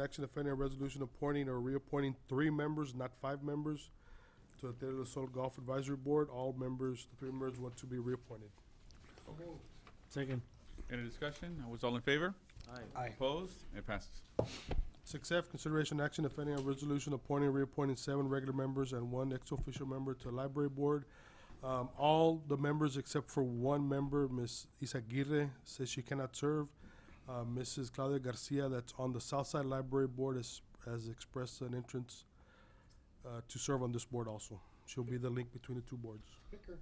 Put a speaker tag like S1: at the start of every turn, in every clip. S1: Action, if any, on resolution appointing or reappointing three members, not five members, to the Tierra del Sol Golf Advisory Board. All members, the three members want to be reappointed.
S2: Second.
S3: Any discussion? Was all in favor?
S2: Aye.
S4: Aye.
S3: Opposed? It passes.
S1: Six F, consideration action, if any, on resolution appointing, or reappointing seven regular members and one ex-official member to the library board. Um, all the members except for one member, Ms. Isaguirre, says she cannot serve. Uh, Mrs. Claudia Garcia, that's on the Southside Library Board, has, has expressed an interest uh, to serve on this board also. She'll be the link between the two boards.
S4: Bicker.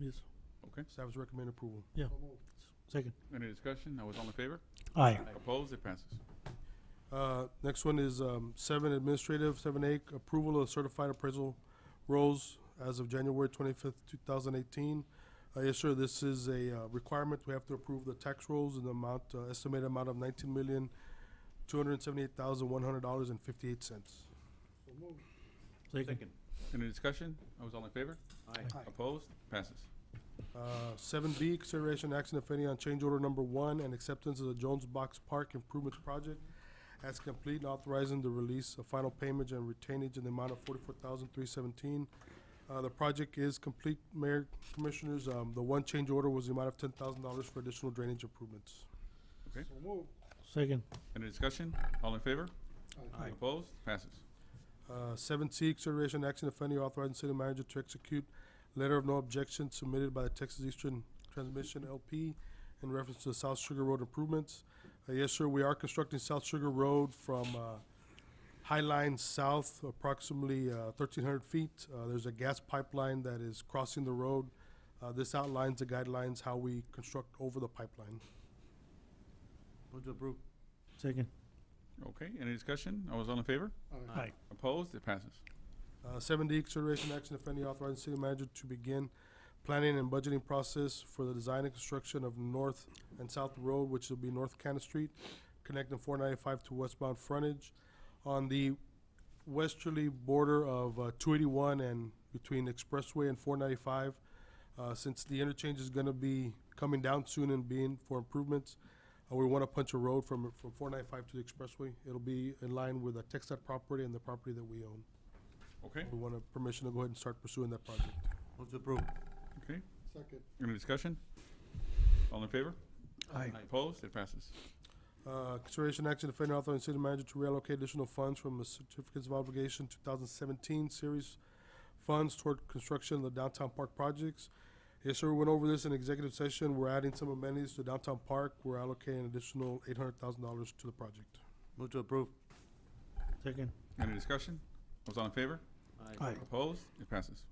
S2: Yes.
S1: Staff is recommend approval.
S2: Yeah. Second.
S3: Any discussion? Was all in favor?
S2: Aye.
S3: Opposed? It passes.
S1: Uh, Next one is um, seven administrative, seven A, approval of certified appraisal rolls as of January twenty-fifth, two thousand eighteen. Uh, Yes, sir, this is a uh, requirement. We have to approve the tax rolls in the amount, uh, estimated amount of nineteen million, two hundred and seventy-eight thousand, one hundred dollars and fifty-eight cents.
S2: Second.
S3: Any discussion? Was all in favor?
S4: Aye.
S3: Opposed? Passes.
S1: Uh, Seven B, consideration action if any on change order number one and acceptance of the Jones Box Park Improvements Project as complete and authorizing the release of final payment and retainage in the amount of forty-four thousand three seventeen. Uh, the project is complete, Mayor, Commissioners, um, the one change order was the amount of ten thousand dollars for additional drainage improvements.
S4: So moved.
S2: Second.
S3: Any discussion? All in favor?
S4: Aye.
S3: Opposed? Passes.
S1: Uh, Seven C, consideration action if any authorizing city manager to execute letter of no objection submitted by the Texas Eastern Transmission LP in reference to South Sugar Road improvements. Uh, Yes, sir, we are constructing South Sugar Road from uh, High Line South, approximately uh, thirteen hundred feet. Uh, There's a gas pipeline that is crossing the road. Uh, This outlines the guidelines how we construct over the pipeline.
S2: Second.
S3: Okay. Any discussion? Was all in favor?
S2: Aye.
S3: Opposed? It passes.
S1: Uh, Seven D, consideration action, if any, authorizing city manager to begin planning and budgeting process for the design and construction of North and South Road, which will be North Cannon Street, connecting four ninety-five to westbound frontage on the westerly border of uh, two eighty-one and between Expressway and four ninety-five. Uh, since the interchange is gonna be coming down soon and being for improvements, uh, we wanna punch a road from, from four ninety-five to the Expressway. It'll be in line with the Texas property and the property that we own.
S3: Okay.
S1: We want a permission to go ahead and start pursuing that project.
S3: Okay.
S4: Second.
S3: Any discussion? All in favor? Opposed? It passes.
S1: Uh, Consideration action, if any, authorizing city manager to reallocate additional funds from the certificates of obligation 2017 series funds toward construction of the downtown park projects. Yes, sir, we went over this in executive session. We're adding some amenities to downtown park. We're allocating an additional $800,000 to the project.
S5: Move to approve.
S2: Second.
S3: Any discussion? Was all in favor?
S2: Aye.
S3: Opposed? It passes.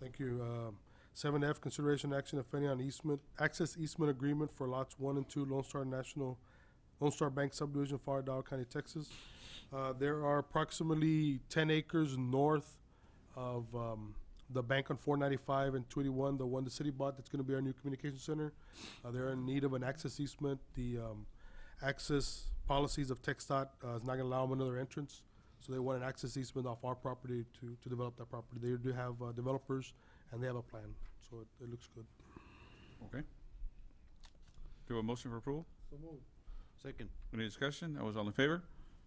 S1: Thank you. Um, Seven F, consideration action, if any, on easement, access easement agreement for lots one and two Lone Star National, Lone Star Bank subdivision, Far Dow County, Texas. Uh, There are approximately ten acres north of um, the bank on four ninety-five and two eighty-one, the one the city bought that's gonna be our new communication center. Uh, They're in need of an access easement. The um, access policies of TechStot uh, is not gonna allow them another entrance. So they want an access easement off our property to, to develop that property. They do have uh, developers and they have a plan, so it, it looks good.
S3: Okay. Do a motion for approval?
S4: So moved.
S5: Second.
S3: Any discussion? Was all in favor?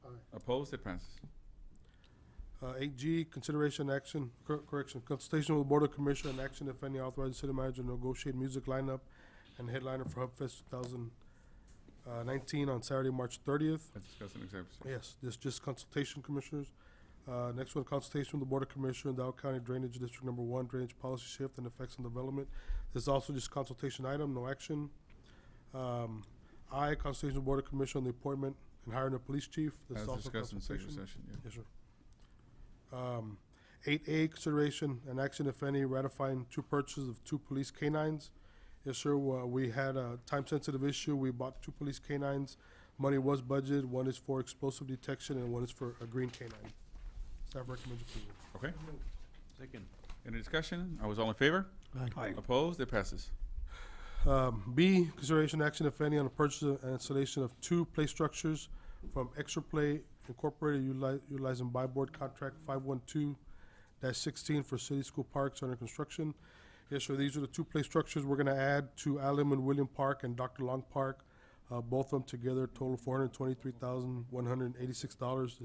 S4: Aye.
S3: Opposed? It passes.
S1: Uh, eight G, consideration action, cor- correction, consultation with Board of Commissioner and action if any authorized city manager to negotiate music lineup and headliner for Hub Fest two thousand uh, nineteen on Saturday, March thirtieth.
S3: Let's discuss in executive session.
S1: Yes, this just consultation, Commissioners. Uh, next one, consultation with the Board of Commissioners, Dow County Drainage District Number One, Drainage Policy Shift and Effects on Development. This is also just consultation item, no action. Um, I, consultation with Board of Commissioner on the appointment and hiring a police chief. This is
S3: As
S1: also
S3: discussed in executive
S1: consultation.
S3: session, yeah.
S1: Yes, sir. Um, eight A, consideration and action, if any, ratifying two purchases of two police canines. Yes, sir, uh, we had a time-sensitive issue. We bought two police canines. Money was budgeted. One is for explosive detection and one is for a green canine. Staff recommends approval.
S3: Okay.
S5: Second.
S3: Any discussion? I was all in favor?
S2: Aye.
S3: Opposed? It passes.
S1: Um, B, consideration action, if any, on the purchase and installation of two play structures from Extra Play Incorporated utili- utilizing buy board contract five one two sixteen for city school parks under construction. Yes, sir, these are the two play structures we're gonna add to Allen and William Park and Dr. Long Park. Uh, both of them together total four hundred twenty-three thousand, one hundred eighty-six dollars